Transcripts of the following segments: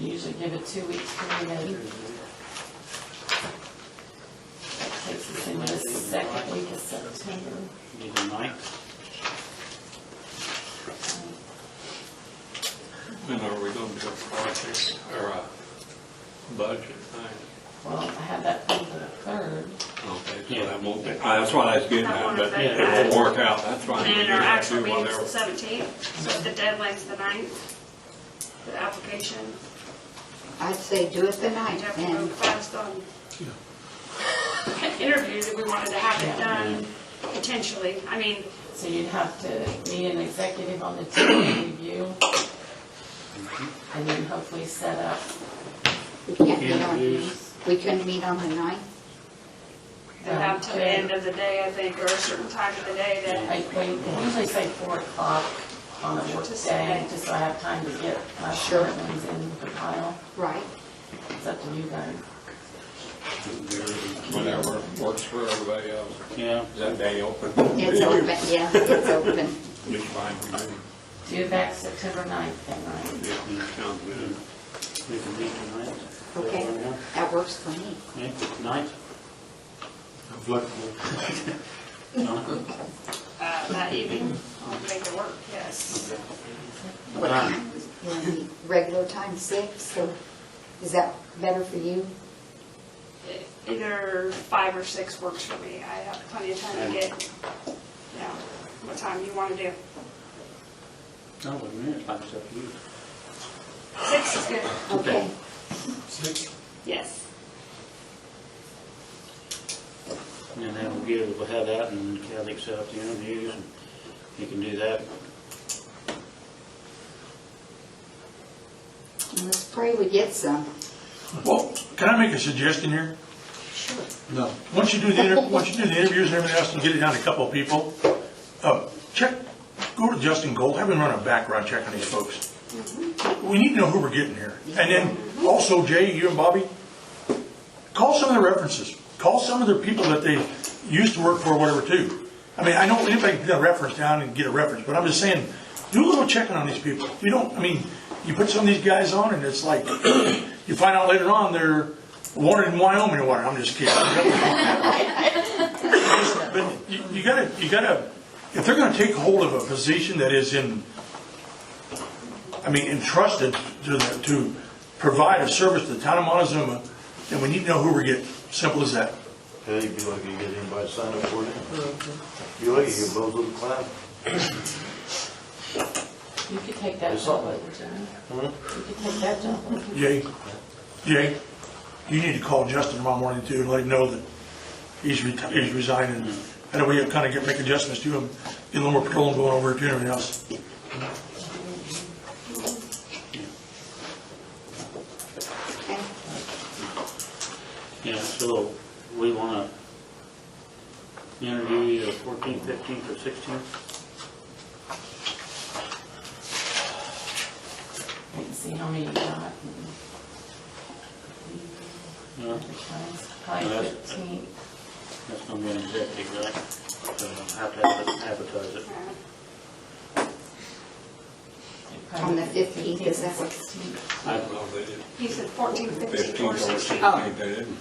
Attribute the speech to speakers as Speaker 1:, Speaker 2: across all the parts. Speaker 1: give it two weeks for me, then takes us into the second week of September.
Speaker 2: Need a ninth?
Speaker 3: Then are we going to do a project or a budget thing?
Speaker 1: Well, I had that on the third.
Speaker 3: Okay, so that won't be, I- that's what I was getting at, but it won't work out, that's right.
Speaker 4: And our actual
Speaker 3: Do
Speaker 4: meeting's the
Speaker 3: whatever.
Speaker 4: seventeenth, so the deadline's the ninth, for the application.
Speaker 5: I'd say do it the
Speaker 4: We'd
Speaker 5: night
Speaker 4: have to move
Speaker 5: and
Speaker 4: fast on interviews if we wanted to have it done, potentially. I mean,
Speaker 1: So you'd have to meet an executive on the team review. And then hopefully set up,
Speaker 5: we can't meet on,
Speaker 2: Interviews.
Speaker 5: we couldn't meet on the ninth.
Speaker 4: about till the end of the day, I think, or a certain time of the day that,
Speaker 1: I think, I usually say four o'clock on a work day, just so I have time to get my
Speaker 5: Sure.
Speaker 1: short ones in the pile.
Speaker 5: Right.
Speaker 1: It's up to you guys.
Speaker 3: Whatever works for everybody else.
Speaker 2: Yeah.
Speaker 3: Is that day open?
Speaker 5: It's open, yeah, it's open.
Speaker 3: Just fine with me.
Speaker 1: Do that September ninth then, right?
Speaker 3: Yeah, sounds good.
Speaker 2: We can meet tonight.
Speaker 5: Okay, that works for me.
Speaker 2: Okay, ninth? Flexible.
Speaker 4: uh, that evening, I'll make it work, yes.
Speaker 5: What time? You wanna meet Regular time, six, or is that better for you?
Speaker 4: Either five or six works for me. I have plenty of time to get, you know, what time you want to do.
Speaker 2: No, wait a minute, it's like it's up to you.
Speaker 4: Six is good,
Speaker 5: Okay,
Speaker 4: yes.
Speaker 2: And then that will give, we'll have that and Kathy can set up the interviews and you can do that.
Speaker 5: let's pray we get some.
Speaker 6: Well, can I make a suggestion here?
Speaker 5: Sure.
Speaker 6: No. Once you do the, inter- once you do the interviews and everything else, and get it down to a couple of people, uh, check, go to Justin Gold, have him run a background check on these folks. We need to know who we're getting here. And then also, Jay, you and Bobby, call some of their references. Call some of their people that they used to work for, whatever, too. I mean, I know anybody can get a reference down and get a reference, but I'm just saying, do a little checking on these people. You don't, I mean, you put some of these guys on and it's like, you find out later on they're wanted in Wyoming or whatever. I'm just kidding. But you you gotta, you gotta, if they're gonna take hold of a position that is in, I mean, entrusted to, the- to provide a service to the town of Montezuma, then we need to know who we're getting. Simple as that.
Speaker 7: Yeah, you'd be lucky to get anybody to sign up for it. You're lucky you blow through the cloud.
Speaker 1: You could take that job over, Jimmy. You could take that job over.
Speaker 6: Jay, Jay, you need to call Justin tomorrow morning too and let him know that he's reti- he's resigning. I know we have kind of get, make adjustments to him, get a little more patrol going over it to everything else.
Speaker 5: Okay.
Speaker 2: Yeah, so we want to interview you the 14th, 15th, or 16th?
Speaker 1: Wait and see how many you got.
Speaker 2: No,
Speaker 1: Probably
Speaker 2: Yes.
Speaker 1: fifteen.
Speaker 2: That's going to be an executive, right? So Have to adver- advertise it.
Speaker 5: On the 15th, is that what-
Speaker 3: I don't know if they did.
Speaker 4: He said fourteen, fifteen,
Speaker 3: Fifteen
Speaker 4: or
Speaker 3: or
Speaker 4: sixteen.
Speaker 3: sixteen,
Speaker 5: Oh.
Speaker 3: they didn't.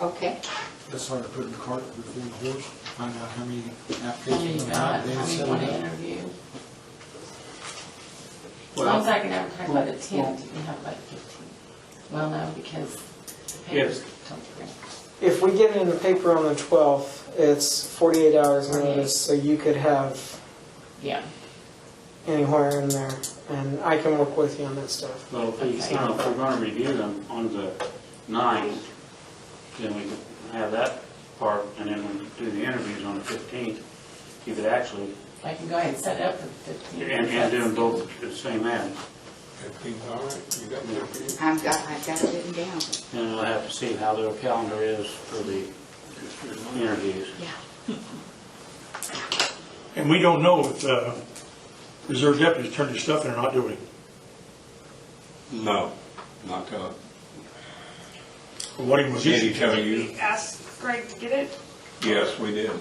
Speaker 5: Okay,
Speaker 8: That's hard to put in the cart before the horse, find out how many
Speaker 1: How many
Speaker 8: applications.
Speaker 1: you
Speaker 8: are
Speaker 1: got,
Speaker 8: out
Speaker 1: how
Speaker 8: there,
Speaker 1: many you
Speaker 8: set
Speaker 1: want
Speaker 8: it
Speaker 1: to
Speaker 8: up.
Speaker 1: interview. As long as I can advertise by the tenth, you can have by the fifteenth. Well, no, because the papers don't print.
Speaker 9: If we get it in the paper on the 12th, it's 48 hours notice, so you could have
Speaker 1: Yeah,
Speaker 9: anywhere in there. And I can work with you on that stuff.
Speaker 2: Well, if we-
Speaker 1: Okay.
Speaker 2: now, if we're going to review them on the 9th, then we can have that part, and then we do the interviews on the 15th. You could actually,
Speaker 1: I can go ahead and set it up for the fifteenth.
Speaker 2: and and do them both at the same end.
Speaker 3: Fifteen's all right, you got fifteen.
Speaker 5: I've got, I've got it written down.
Speaker 2: And we'll have to see how their calendar is for the interviews.
Speaker 5: Yeah.
Speaker 6: And we don't know if, uh, reserve deputies turned their stuff in or not, do we?
Speaker 3: No, not till,
Speaker 6: Or What he was.
Speaker 3: did he tell you?
Speaker 4: Ask Greg to get it?
Speaker 3: Yes, we did.